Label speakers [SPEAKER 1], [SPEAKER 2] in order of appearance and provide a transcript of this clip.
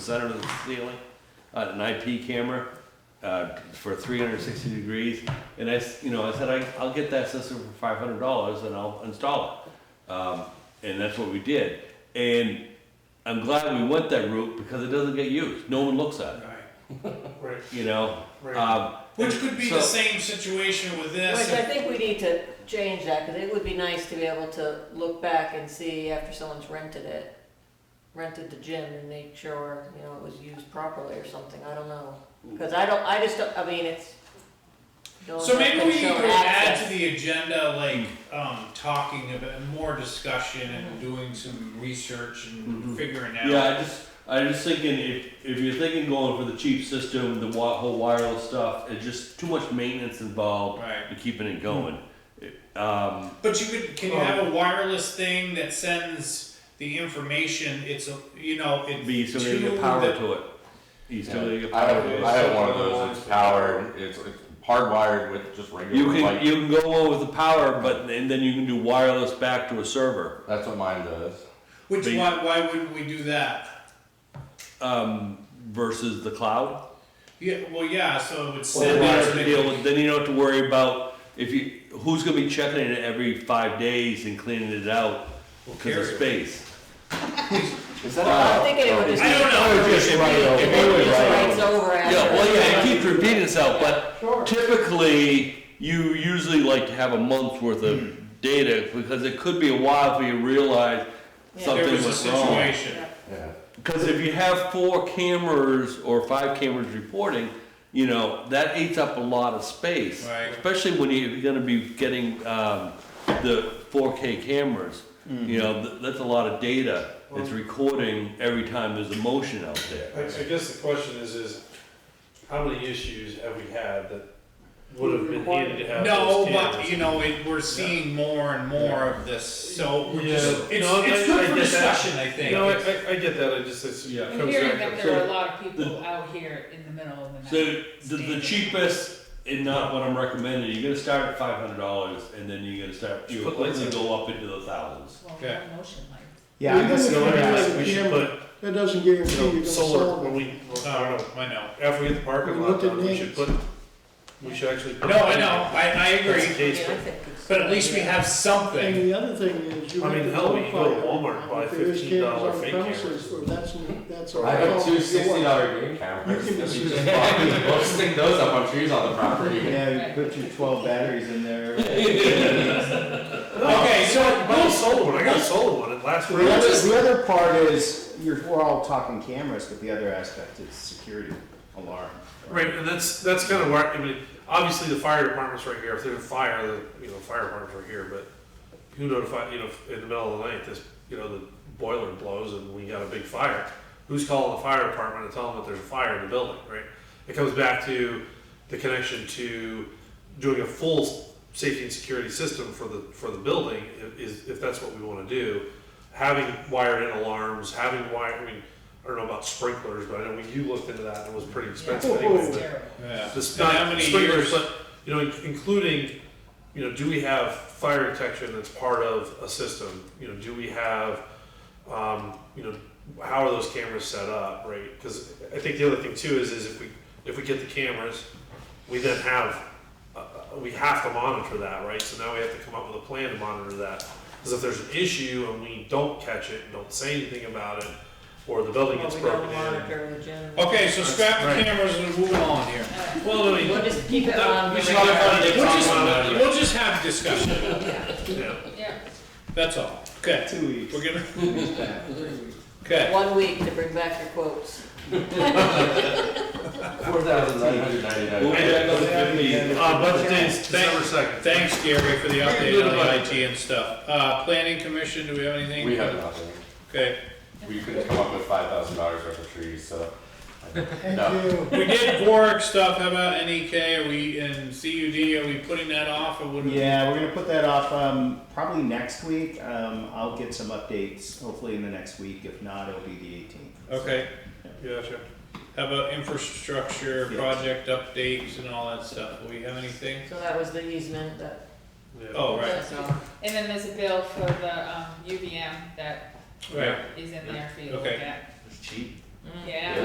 [SPEAKER 1] center of the ceiling, uh, an IP camera, uh, for three hundred and sixty degrees. And I, s- you know, I said, I, I'll get that system for five hundred dollars and I'll install it. Um, and that's what we did. And I'm glad we went that route because it doesn't get used. No one looks at it,
[SPEAKER 2] Right, right,
[SPEAKER 1] you know?
[SPEAKER 2] right.
[SPEAKER 1] Um,
[SPEAKER 2] Which could be the
[SPEAKER 1] so-
[SPEAKER 2] same situation with
[SPEAKER 3] Which
[SPEAKER 2] this.
[SPEAKER 3] I think we need to change that, because it would be nice to be able to look back and see after someone's rented it, rented the gym and make sure, you know, it was used properly or something, I don't know. Because I don't, I just don't, I mean, it's. no one's
[SPEAKER 2] So maybe
[SPEAKER 3] gonna
[SPEAKER 2] we need
[SPEAKER 3] show
[SPEAKER 2] to add
[SPEAKER 3] access.
[SPEAKER 2] to the agenda, like, um, talking about more discussion and doing some research and
[SPEAKER 1] Mhm.
[SPEAKER 2] figuring out.
[SPEAKER 1] Yeah, I just, I just thinking if, if you're thinking going for the cheap system, the wi- whole wireless stuff, it's just too much maintenance involved
[SPEAKER 2] Right,
[SPEAKER 1] and keeping it going. It- Um,
[SPEAKER 2] but you could, can you
[SPEAKER 1] Well-
[SPEAKER 2] have a wireless thing that sends the information, it's, a you know, it.
[SPEAKER 1] be still gonna get power to it. You still gonna get
[SPEAKER 4] I
[SPEAKER 1] power
[SPEAKER 4] have,
[SPEAKER 1] to
[SPEAKER 4] I
[SPEAKER 1] it.
[SPEAKER 4] have one of those, it's powered, it's, it's hardwired with just
[SPEAKER 1] You
[SPEAKER 4] regular
[SPEAKER 1] can,
[SPEAKER 4] light.
[SPEAKER 1] you can go on with the power, but, and then you can do wireless back to a server.
[SPEAKER 4] That's what mine does.
[SPEAKER 2] Which,
[SPEAKER 1] be-
[SPEAKER 2] why, why wouldn't we do that?
[SPEAKER 1] Um, versus the cloud.
[SPEAKER 2] Yeah, well, yeah, so it would
[SPEAKER 1] Then
[SPEAKER 2] send.
[SPEAKER 1] you
[SPEAKER 2] out
[SPEAKER 1] don't have to deal with, then you don't have to worry about if you, who's gonna be checking it every five days and cleaning it out because of
[SPEAKER 2] Carrier.
[SPEAKER 1] space.
[SPEAKER 4] Is that?
[SPEAKER 3] Well, I'm
[SPEAKER 4] allowed?
[SPEAKER 3] thinking it would just-
[SPEAKER 2] I don't know.
[SPEAKER 4] Just right over.
[SPEAKER 1] If you-
[SPEAKER 3] It just
[SPEAKER 4] Right
[SPEAKER 3] writes
[SPEAKER 4] over.
[SPEAKER 3] over after.
[SPEAKER 1] Yeah, well, yeah, it keeps repeating itself,
[SPEAKER 4] Sure.
[SPEAKER 1] but typically, you usually like to have a month's worth of
[SPEAKER 2] Hmm.
[SPEAKER 1] data, because it could be a while before you realize
[SPEAKER 3] Yeah.
[SPEAKER 1] something
[SPEAKER 2] There was a
[SPEAKER 1] went wrong.
[SPEAKER 2] situation.
[SPEAKER 4] Yeah.
[SPEAKER 1] Because if you have four cameras or five cameras reporting, you know, that eats up a lot of space.
[SPEAKER 2] Right.
[SPEAKER 1] Especially when you- you're gonna be getting, um, the four K cameras,
[SPEAKER 2] Hmm.
[SPEAKER 1] you know, th- that's a lot of data. It's recording every time there's a motion out there.
[SPEAKER 5] I I guess the question is, is how many issues have we had that would have been needed to have
[SPEAKER 2] No,
[SPEAKER 5] those
[SPEAKER 2] but you
[SPEAKER 5] cameras?
[SPEAKER 2] know, it, we're seeing more and more of this, so we're
[SPEAKER 5] Yeah.
[SPEAKER 2] just, it's,
[SPEAKER 5] No,
[SPEAKER 2] it's
[SPEAKER 5] I-
[SPEAKER 2] good
[SPEAKER 5] I
[SPEAKER 2] for
[SPEAKER 5] get that.
[SPEAKER 2] discussion, I think.
[SPEAKER 5] No, I, I, I get that, I just, it's, yeah. it
[SPEAKER 6] I'm
[SPEAKER 5] comes
[SPEAKER 6] hearing
[SPEAKER 5] back
[SPEAKER 6] that
[SPEAKER 5] to-
[SPEAKER 6] there are a lot of people out here in the middle of the night.
[SPEAKER 1] So the, the
[SPEAKER 6] standing.
[SPEAKER 1] cheapest and not what I'm recommending, you're gonna start at five hundred dollars and then you're gonna start,
[SPEAKER 5] Just
[SPEAKER 1] you
[SPEAKER 5] put lights
[SPEAKER 1] quickly go up into the thousands.
[SPEAKER 6] Well,
[SPEAKER 2] Okay.
[SPEAKER 6] no motion lights.
[SPEAKER 7] Yeah, I
[SPEAKER 8] Even
[SPEAKER 7] guess
[SPEAKER 8] if
[SPEAKER 5] So
[SPEAKER 8] you
[SPEAKER 5] I
[SPEAKER 8] have
[SPEAKER 5] guess
[SPEAKER 8] a
[SPEAKER 5] we should
[SPEAKER 8] camera,
[SPEAKER 5] put,
[SPEAKER 8] That doesn't guarantee
[SPEAKER 5] you
[SPEAKER 8] you're
[SPEAKER 5] know,
[SPEAKER 8] gonna
[SPEAKER 5] solar,
[SPEAKER 8] solve
[SPEAKER 5] when
[SPEAKER 8] it.
[SPEAKER 5] we,
[SPEAKER 2] I don't know, I know.
[SPEAKER 5] after we get the parking
[SPEAKER 8] We
[SPEAKER 5] lot
[SPEAKER 8] looked at
[SPEAKER 5] done, we should put,
[SPEAKER 8] names.
[SPEAKER 5] we should actually. put-
[SPEAKER 2] No, I know, I, I
[SPEAKER 5] That's the
[SPEAKER 2] agree,
[SPEAKER 3] Yeah, I
[SPEAKER 5] case, but-
[SPEAKER 3] think it's-
[SPEAKER 2] but at least we have
[SPEAKER 8] And
[SPEAKER 2] something.
[SPEAKER 8] the other thing is, you
[SPEAKER 5] I
[SPEAKER 8] have
[SPEAKER 5] mean,
[SPEAKER 8] to
[SPEAKER 5] hell, we can go to
[SPEAKER 8] notify
[SPEAKER 5] Walmart and buy
[SPEAKER 8] if there is
[SPEAKER 5] $15
[SPEAKER 8] cameras on the
[SPEAKER 5] fake
[SPEAKER 8] premises,
[SPEAKER 5] cameras.
[SPEAKER 8] Or that's, that's.
[SPEAKER 4] I have two
[SPEAKER 8] all-
[SPEAKER 4] sixty dollar game cameras,
[SPEAKER 8] You can
[SPEAKER 4] that we
[SPEAKER 8] just-
[SPEAKER 4] just bought. We both stick those up on trees on the property.
[SPEAKER 7] Yeah, you put your twelve batteries in there.
[SPEAKER 2] Okay, so
[SPEAKER 5] I bought a
[SPEAKER 2] we'll,
[SPEAKER 5] solar one, I got a solar one, it lasts
[SPEAKER 7] The
[SPEAKER 5] forever.
[SPEAKER 7] other, the other part is, you're, we're all talking cameras, but the other aspect is security alarm.
[SPEAKER 5] Right, and that's, that's kind of where, I mean, obviously the fire department's right here, if there's a fire, the, you know, fire department's right here, but who notified, you know, if in the middle of the night, this, you know, the boiler blows and we got a big fire, who's calling the fire department and telling them that there's a fire in the building, right? It comes back to the connection to doing a full safety and security system for the, for the building, i- is, if that's what we wanna do. Having wired in alarms, having wired, I mean, I don't know about sprinklers, but I know when you looked into that, it was pretty expensive
[SPEAKER 8] Yeah.
[SPEAKER 5] anyway.
[SPEAKER 6] It's
[SPEAKER 5] but-
[SPEAKER 6] terrible.
[SPEAKER 2] yeah.
[SPEAKER 5] just
[SPEAKER 2] And
[SPEAKER 5] not
[SPEAKER 2] how many years-
[SPEAKER 5] sprinklers, but you know, including you know, do we have fire detection that's part of a system? You know, do we have um, you know, how are those cameras set up, right? Because I think the other thing too is is if we if we get the cameras, we then have uh, we have to monitor that, right? So now we have to come up with a plan to monitor that. Because if there's an issue and we don't catch it, and don't say anything about it, or the building
[SPEAKER 3] Well,
[SPEAKER 5] gets
[SPEAKER 3] we
[SPEAKER 5] broken
[SPEAKER 3] don't
[SPEAKER 5] in.
[SPEAKER 3] monitor the gym.
[SPEAKER 2] Okay, so scrap the
[SPEAKER 5] Right.
[SPEAKER 2] cameras and move on here.
[SPEAKER 5] Well, no,
[SPEAKER 3] We'll just keep it
[SPEAKER 2] Uh,
[SPEAKER 5] That-
[SPEAKER 3] on.
[SPEAKER 5] we
[SPEAKER 3] the
[SPEAKER 5] should talk
[SPEAKER 3] radar.
[SPEAKER 5] about it.
[SPEAKER 2] We'll just,
[SPEAKER 5] Yeah.
[SPEAKER 2] we'll just have discussion,
[SPEAKER 5] yeah.
[SPEAKER 6] Yeah.
[SPEAKER 2] that's all, okay.
[SPEAKER 7] Two weeks.
[SPEAKER 2] We're gonna,
[SPEAKER 7] It's bad.
[SPEAKER 2] okay.
[SPEAKER 3] One week to bring back your quotes.
[SPEAKER 4] Four thousand nine hundred ninety-nine.
[SPEAKER 1] We'll
[SPEAKER 2] I-
[SPEAKER 1] back up to 50.
[SPEAKER 5] Uh, budget days,
[SPEAKER 2] Thank-
[SPEAKER 5] December second.
[SPEAKER 2] Thanks Gary for the update
[SPEAKER 5] You're
[SPEAKER 2] on the
[SPEAKER 5] welcome.
[SPEAKER 2] IT and stuff. Uh, planning commission, do we have anything?
[SPEAKER 4] We have nothing,
[SPEAKER 2] Okay,
[SPEAKER 4] we couldn't come up with five thousand dollars worth of trees, so.
[SPEAKER 8] Thank you.
[SPEAKER 2] we did Warwick stuff, how about NEK, are we in CUD, are we putting that off or what? do we-
[SPEAKER 7] Yeah, we're gonna put that off, um, probably next week, um, I'll get some updates, hopefully in the next week, if not, it'll be the eighteenth.
[SPEAKER 2] Okay, gotcha. How about infrastructure,
[SPEAKER 7] Yes.
[SPEAKER 2] project updates and all that stuff? Do we have anything?
[SPEAKER 3] So that was the easement that,
[SPEAKER 2] Oh, right,
[SPEAKER 3] so,
[SPEAKER 6] And then there's a bill for the um, UVM that
[SPEAKER 2] right.
[SPEAKER 6] is in there for you to look
[SPEAKER 2] Okay.
[SPEAKER 6] at.
[SPEAKER 1] It's cheap.
[SPEAKER 6] yeah.